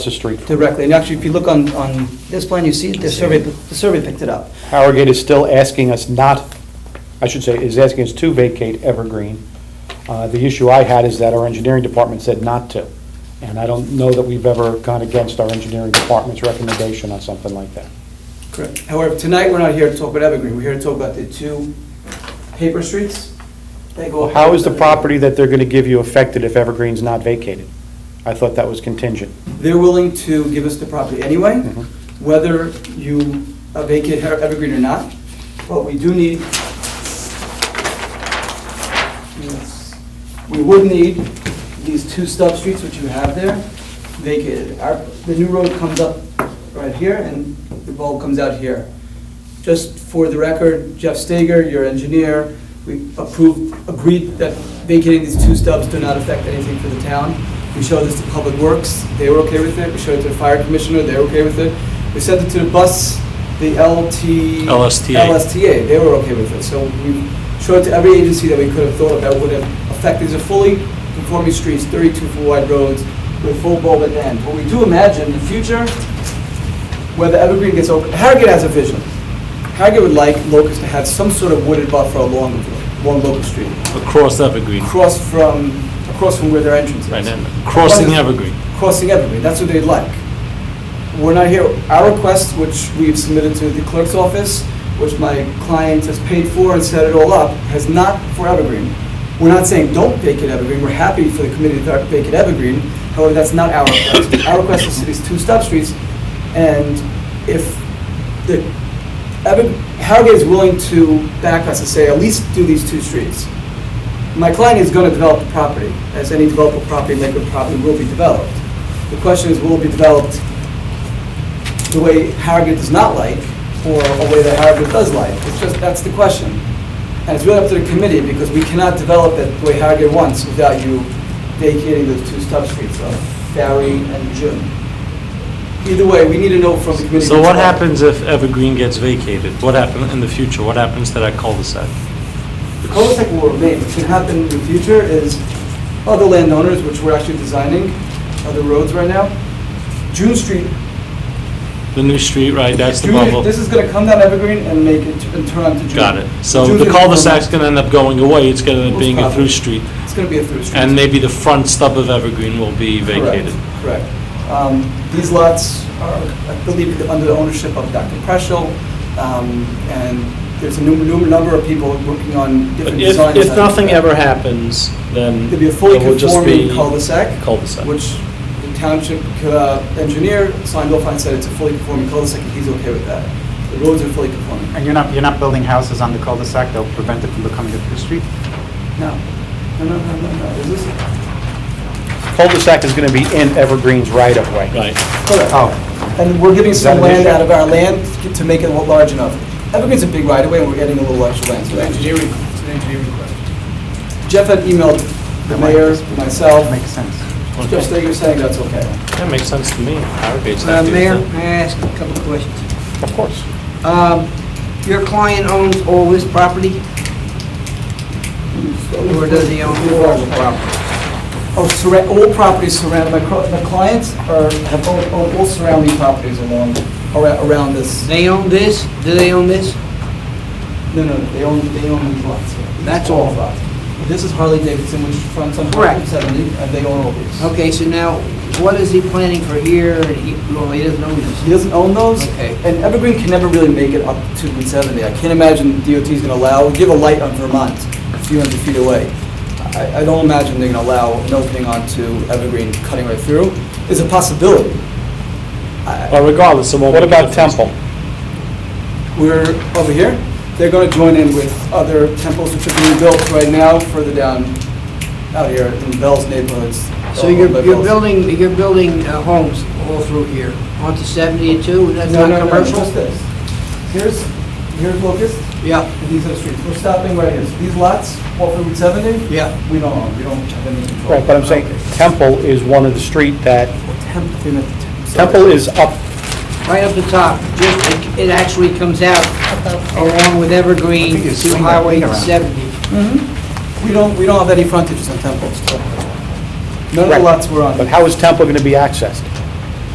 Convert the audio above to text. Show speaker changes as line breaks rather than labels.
the street from it.
directly. And actually, if you look on, on this plan, you see the survey, the survey picked it up.
Harrogate is still asking us not, I should say, is asking us to vacate Evergreen. Uh, The issue I had is that our engineering department said not to, and I don't know that we've ever gone against our engineering department's recommendation on something like that.
Correct. However, tonight, we're not here to talk about Evergreen. We're here to talk about the two paper streets that go.
How is the property that they're going to give you affected if Evergreen's not vacated? I thought that was contingent.
They're willing to give us the property anyway,
Mhm.
whether you uh, vacate Her- Evergreen or not. But we do need, yes, we would need these two stub streets which you have there vacated. Our, the new road comes up right here and the bulb comes out here. Just for the record, Jeff Stager, your engineer, we approved, agreed that vacating these two stubs do not affect anything for the town. We showed this to Public Works, they were okay with it. We showed it to the fire commissioner, they were okay with it. We sent it to the bus, the LT...
LSTA.
LSTA, they were okay with it. So we showed it to every agency that we could have thought of that would have affected. These are fully conforming streets, 32-foot wide roads with full bulb at the end. But we do imagine in the future, whether Evergreen gets open, Harrogate has a vision. Harrogate would like Locust to have some sort of wooded buffer along, along Locust Street,
Across Evergreen,
across from, across from where their entrance is.
right, and crossing Evergreen.
Crossing Evergreen, that's what they'd like. We're not here, our request, which we've submitted to the clerk's office, which my client has paid for and set it all up, has not for Evergreen. We're not saying don't vacate Evergreen, we're happy for the committee to vacate Evergreen, however, that's not our request. Our request is to these two stop streets, and if the, Evan, Harrogate is willing to back us and say, at least do these two streets. My client is going to develop the property, as any developable property, Lakewood property will be developed. The question is, will it be developed the way Harrogate does not like, or a way that Harrogate does like? It's just, that's the question. And it's really up to the committee, because we cannot develop it the way Harrogate wants without you vacating those two stub streets of Ferry and June. Either way, we need to know from the committee.
So
which one.
what happens if Evergreen gets vacated? What happens in the future? What happens to that cul-de-sac?
The cul-de-sac will remain. What can happen in the future is other landowners, which we're actually designing, other roads right now, June Street.
The new street, right, that's the
June-
bubble.
This is gonna come down Evergreen and make it, and turn onto June.
Got it. So
June
the
Street's
cul-de-sac's
gonna-
gonna end up going away, it's gonna end up
Most
being a
probably.
through street.
It's gonna be a through street.
And maybe the front stub of Evergreen will be vacated.
Correct. correct. Um, These lots are, I believe, under the ownership of Dr. Preschel, um, and there's a num- num- number of people working on different
If,
designs.
if nothing ever happens, then
It'd
it
be a fully
will just be
conforming cul-de-sac.
cul-de-sac.
which the township uh, engineer signed off on, said it's a fully conforming cul-de-sac, and he's okay with that. The roads are fully conforming.
And you're not, you're not building houses on the cul-de-sac that'll prevent it from becoming a through street?
No, no, no, no, no, no, is this?
Cul-de-sac is going to be in Evergreen's right-of-way.
Right.
Correct.
Oh,
And we're giving
Is that
some
an
land
issue?
out of our land to- to make it lo- large enough. Evergreen's a big right-of-way, and we're getting a little extra land, so that's engineering, it's an engineering question. Jeff had emailed the mayor, myself,
that makes sense.
Jeff Stager saying that's okay.
That makes sense to me. Arrogate's
Uh,
not doing
Mayor,
that.
may I ask a couple of questions?
Of course.
Um, Your client owns all this property, or does he own all the property?
Oh, surra- all properties surround, my cro- my clients are, have all- all all surrounding properties along, ara- around this.
They own this, do they own this?
No, no, they own, they own these lots. here. These
That's
are
all.
lots. This is Harley Davidson, which fronts on Route
Correct.
70, and they own all these.
Okay, so now, what is he planning for here, and he, well, he doesn't own this?
He doesn't own those.
Okay.
And Evergreen can never really make it up to 170. I can't imagine DOT's going to allow, give a light on Vermont, a few hundred feet away. I, I don't imagine they're going to allow an opening onto Evergreen cutting right through. It's a possibility. I-
But regardless, it won't
What
make a
about
difference.
Temple?
We're over here. They're going to join in with other temples which are being built right now further down out here in Bell's neighborhoods.
So you're,
Bell's-
you're building, you're building uh, homes all through here, onto 72, and that's
No,
not
no, no,
commercial?
just this. Here's, here's Locust,
Yeah,
and these are streets. We're stopping right here. So These lots, off Route 70,
yeah,
we don't own, we don't have any control.
Right, but I'm saying Temple is one of the street that,
Temple, they're not Temple. Sorry.
Temple is up,
right up the top, just, it- it actually comes out along with
I
Evergreen,
think you
to
swing that
Highway
thing around.
70.
We don't, we don't have any frontages on temples. so None of the
Right.
lots we're on.
but how is Temple going to be accessed?